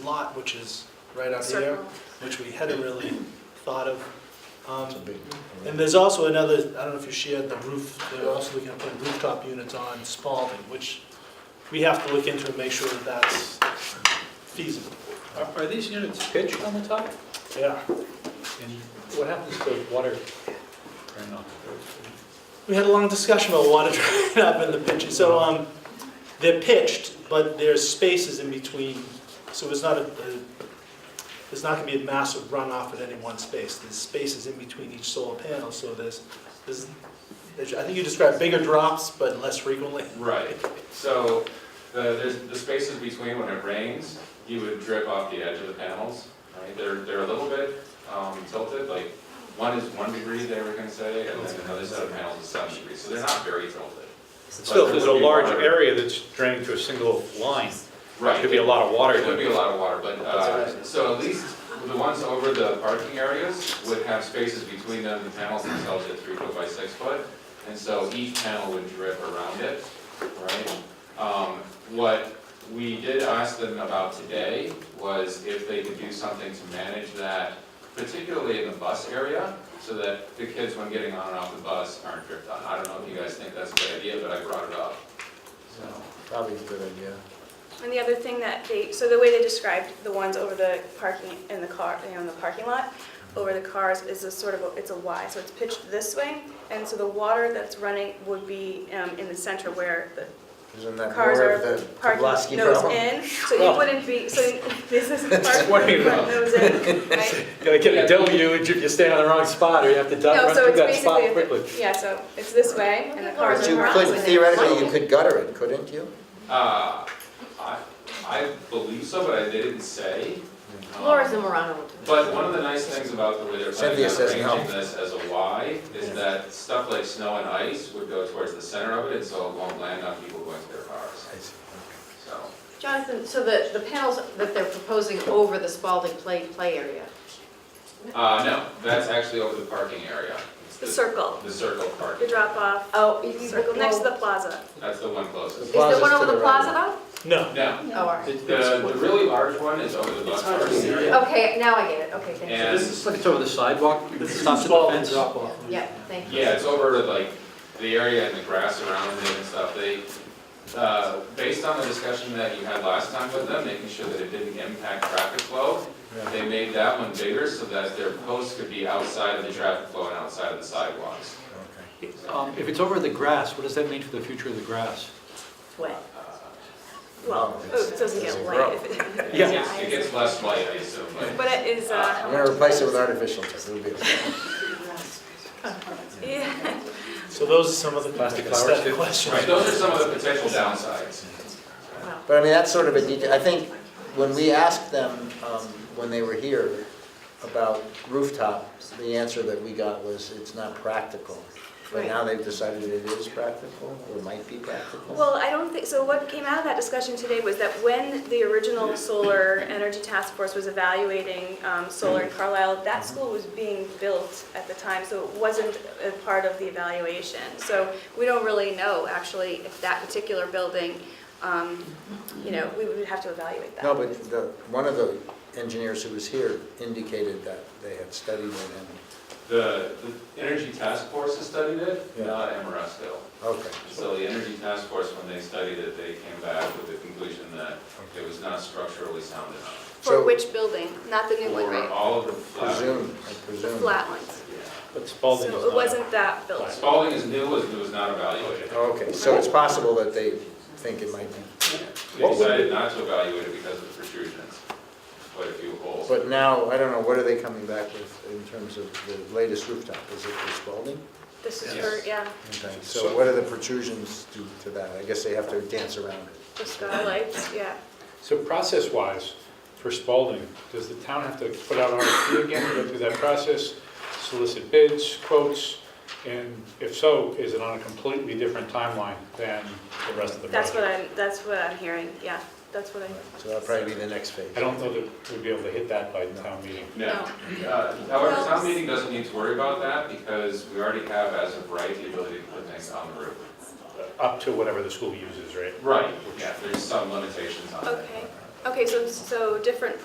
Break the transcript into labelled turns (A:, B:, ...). A: lot, which is right up here,
B: Circle.
A: which we hadn't really thought of.
C: It's a
A: Um,
C: big.
A: And there's also another, I don't know if you shared the roof, they're also looking at putting rooftop units on Spalding, which we have to look into and make sure that that's feasible.
D: Are are these units pitched on the top?
A: Yeah.
D: And what happens to water? Or not?
A: We had a long discussion about water drying up in the pitches. So um, they're pitched, but there's spaces in between, so it's not a, a- there's not gonna be a massive runoff at any one space. There's spaces in between each solar panel, so there's, there's, I think you described bigger drops, but less frequently.
E: Right, so the, there's the spaces between when it rains, you would drip off the edge of the panels, right? They're, they're a little bit um, tilted, like, one is one degree, they were gonna say, and then another set of panels is seven degrees, so they're not very tilted.
D: Still, if there's a
E: But there would be
D: large
E: water.
D: area that's drained to a single line.
E: Right,
D: Could be a lot of water.
E: There would be a lot of water, but, uh, so at least the ones over the parking areas would have spaces between them, the panels themselves at three foot by six foot. And so each panel would drip around it, right? Um, what we did ask them about today was if they could do something to manage that, particularly in the bus area, so that the kids when getting on and off the bus aren't dripped on. I don't know if you guys think that's a good idea, but I brought it up, so.
C: Probably a good idea.
B: And the other thing that they, so the way they described the ones over the parking, in the car, you know, in the parking lot, over the cars is a sort of, a- it's a Y, so it's pitched this way, and so the water that's running would be um, in the center where the
C: Isn't that
B: cars
C: more
B: are
C: of the
B: parking,
C: Pulaski
B: nose
C: problem?
B: in, so
D: Well.
B: you wouldn't be, so this is parking,
D: what I mean.
B: front nose in, right?
D: Gotta get a W if you stand on the wrong spot, or you have to duck,
B: No,
D: run
B: so
D: through
B: it's
D: that spot
B: basically,
D: quickly.
B: yeah, so it's this way, and the cars
C: But
B: are
C: you
B: parked.
C: could, theoretically, you could gutter it, couldn't you?
E: Uh, I, I believe so, but I they didn't say. Um,
F: Laura's a Morano. will do it.
E: But one of the nice things about the way they're planning on
C: Cynthia says no.
E: arranging this as a Y is that stuff like snow and ice would go towards the center of it, and so it won't land on people going to their cars, so.
F: Jonathan, so the, the panels that they're proposing over the Spalding play, play area,
E: Uh, no, that's actually over the parking area. It's
B: The circle,
E: The circle park,
B: the drop-off,
F: oh, if you
B: circle, next to the plaza.
E: that's the one closest.
F: Is there one
C: Plaza's to
F: over
C: the
F: the
C: right.
F: plaza though?
A: No,
E: No,
F: Oh, all right.
E: the, the really large one is over the bus parking area,
F: Okay, now I get it, okay, thank you.
E: and
D: It's like it's over the sidewalk,
A: this is
D: stops at the
A: small
D: fence.
A: drop off.
F: Yeah, thank you.
E: Yeah, it's over like the area and the grass around it and stuff. They, uh, based on the discussion that you had last time with them, making sure that it didn't impact traffic flow, they made that one bigger so that their posts could be outside of the traffic flow and outside of the sidewalks.
D: Um, If it's over the grass, what does that mean for the future of the grass?
B: Wet.
E: Uh,
B: Well,
C: Oh,
B: oh, it doesn't get light. if it-
D: Yeah.
E: It gets less light, I assume, but
B: But it is, uh, how
C: I'm
B: much?
C: gonna replace it with artificial, turf. it'll be.
B: Yeah.
A: So those are some of the
D: Plastic flowers,
A: aesthetic
D: too.
A: questions.
E: Right, those are some of the potential downsides.
C: But I mean, that's sort of a detail, I think, when we asked them, um, when they were here about rooftop, the answer that we got was, it's not practical. But
F: Right.
C: now they've decided it is practical, or might be practical.
B: Well, I don't think, so what came out of that discussion today was that when the original solar energy task force was evaluating um, solar in Carlisle, that school was being built at the time, so it wasn't a part of the evaluation. So we don't really know, actually, if that particular building, um, you know, we would have to evaluate that.
C: No, but the, one of the engineers who was here indicated that they had studied it and,
E: The, the Energy Task Force has studied it,
C: Yeah.
E: not Amoresco.
C: okay.
E: So the Energy Task Force, when they studied it, they came back with the conclusion that it was not structurally sound enough.
B: For
C: So-
B: which building? Not the new one,
E: Or
B: right?
E: all of the
C: Presume,
E: flags.
C: I
B: The
C: presume.
B: flat ones.
D: But
B: So
D: Spalding is not.
B: it wasn't that building.
E: Spalding is new, was, was not evaluated.
C: Okay, so it's possible that they think it might be,
E: They decided not to evaluate it because of the protrusions, quite a few holes.
C: but now, I don't know, what are they coming back with in terms of the latest rooftop? Is it the Spalding?
B: This is,
E: Yes.
B: for- yeah,
C: Okay, so what are the protrusions due to that? I guess they have to dance around it.
B: the skylights, yeah.
G: So process-wise, for Spalding, does the town have to put out an RFP again, go through that process, solicit bids, quotes? And if so, is it on a completely different timeline than the rest of the
B: That's what
G: project?
B: I'm, that's what I'm hearing, yeah, that's what I,
C: So that'll probably be the next phase.
G: I don't know that we'd be able to hit that by the town meeting.
E: No. Uh, However, town meeting doesn't need to worry about that because we already have, as of right, the ability to put things on the roof.
G: Up to uh, whatever the school uses, right?
E: Right, yeah, there's some limitations on it.
B: okay. Okay, so, so different